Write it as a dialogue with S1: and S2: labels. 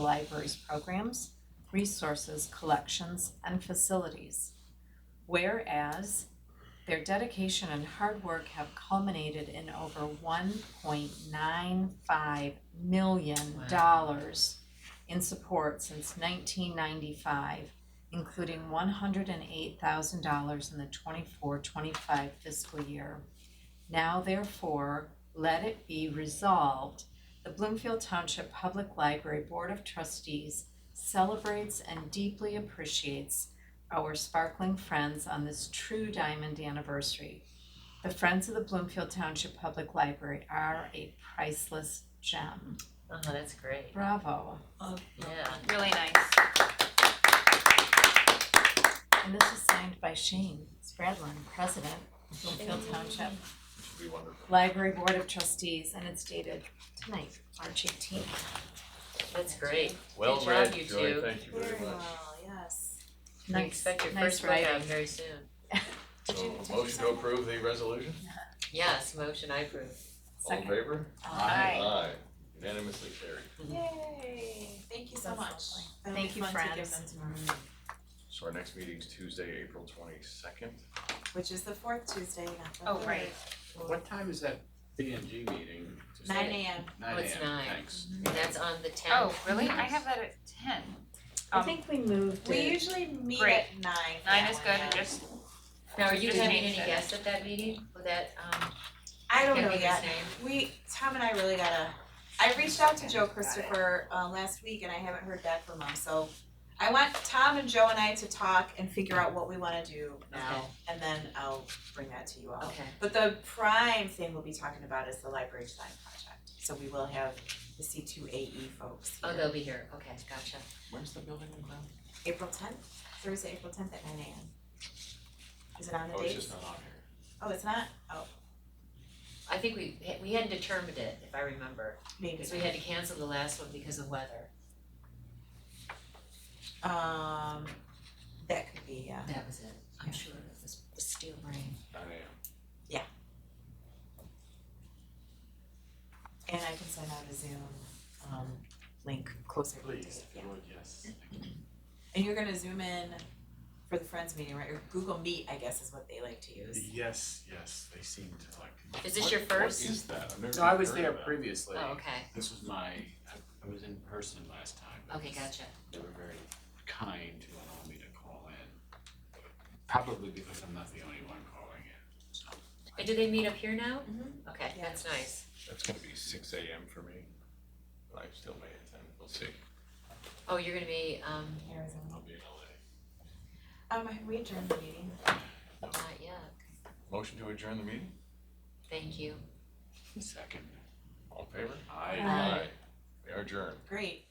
S1: the library's programs, resources, collections, and facilities. Whereas their dedication and hard work have culminated in over one point nine five million dollars in support since nineteen ninety-five, including one hundred and eight thousand dollars in the 24-25 fiscal year. Now therefore, let it be resolved, the Bloomfield Township Public Library Board of Trustees celebrates and deeply appreciates our sparkling friends on this true diamond anniversary. The Friends of the Bloomfield Township Public Library are a priceless gem.
S2: Oh, that's great.
S1: Bravo.
S2: Yeah.
S3: Really nice.
S1: And this is signed by Shane Spradlin, President, Bloomfield Township
S4: Be wonderful.
S1: Library Board of Trustees, and it's dated tonight, March eighteenth.
S2: That's great.
S4: Well
S2: job,
S4: read,
S2: you
S4: Joy,
S2: two.
S4: thank you very much.
S1: yes.
S2: We expect your
S1: nice
S2: first book out
S1: writing.
S2: very soon.
S3: Did you- did
S4: So,
S3: you
S4: motion to
S3: sign it?
S4: approve the resolution,
S2: Yes, motion I approve.
S4: all in
S1: Second.
S4: favor?
S3: Aye.
S4: Aye, unanimously carried.
S3: Yay, thank you so
S1: That's
S3: much.
S1: lovely.
S3: That'll be
S1: Thank you,
S3: fun to give
S1: friends.
S3: them tomorrow,
S4: So our next meeting's Tuesday, April twenty-second.
S3: Which is the fourth Tuesday, not the
S5: Oh,
S3: third.
S5: right. What time is that B and G meeting? Just-
S3: Nine AM.
S2: Oh,
S5: Nine
S2: it's
S5: AM,
S2: nine.
S5: thanks.
S2: And that's on the tenth.
S5: Oh, really? I have that at ten.
S1: I
S5: Um,
S1: think we moved
S3: We
S1: it.
S3: usually meet
S5: Great.
S3: at nine. for
S5: Nine
S3: that
S5: is
S3: one,
S5: good,
S3: yeah.
S5: just,
S2: Now, are you
S5: Just
S2: having any
S5: change it.
S2: guests at that meeting? Will that, um,
S3: I don't
S2: can't
S3: know
S2: think of
S3: yet.
S2: his name?
S3: We, Tom and I really gotta, I reached out to Joe Christopher uh last week and I haven't heard back from him, so I want Tom and Joe and I to talk and figure out what we wanna do now, and then I'll bring that to you all.
S2: Okay.
S3: But the prime thing we'll be talking about is the library design project, so we will have the C two A E folks
S2: Oh,
S3: here,
S2: they'll be here. Okay, gotcha.
S4: Where's the building in town?
S3: April tenth, Thursday, April tenth at nine AM. Is it on the
S4: Oh, it's
S3: date?
S4: just not on here.
S3: Oh, it's not,
S2: I think we, we hadn't determined it, if I remember,
S3: maybe,
S2: because we had to cancel the last one because of weather.
S3: um, that could be, yeah.
S2: That was it. I'm
S3: Yeah.
S2: sure it was the steel rain.
S4: Nine AM.
S3: And I can send out a Zoom um link closer to the date,
S4: Please,
S3: yeah.
S4: if you would, yes.
S3: And you're gonna zoom in for the Friends meeting, right, or Google Meet, I guess is what they like to use.
S4: Yes, yes, they seem to like.
S2: Is this
S4: What-
S2: your first?
S4: What is that? I've never
S5: no, I was
S4: heard
S5: there
S4: of that.
S5: previously.
S2: Oh, okay,
S5: This was my, I, I was in person last time. but
S2: okay, gotcha.
S5: They were very kind to allow me to call in. Probably because I'm not the only one calling in, so.
S2: And do they meet up here now?
S3: Mhm.
S2: Okay,
S3: Yeah.
S2: that's nice.
S4: That's gonna be six AM for me, but I still made it then, we'll see,
S2: Oh, you're gonna be, um,
S3: Arizona.
S4: I'll be in LA.
S3: Um, have we adjourned the meeting?
S2: not yet.
S4: Motion to adjourn the meeting,
S2: Thank you.
S5: Second,
S4: all in favor?
S5: I. uh,
S1: Aye.
S4: We are adjourned.
S3: Great.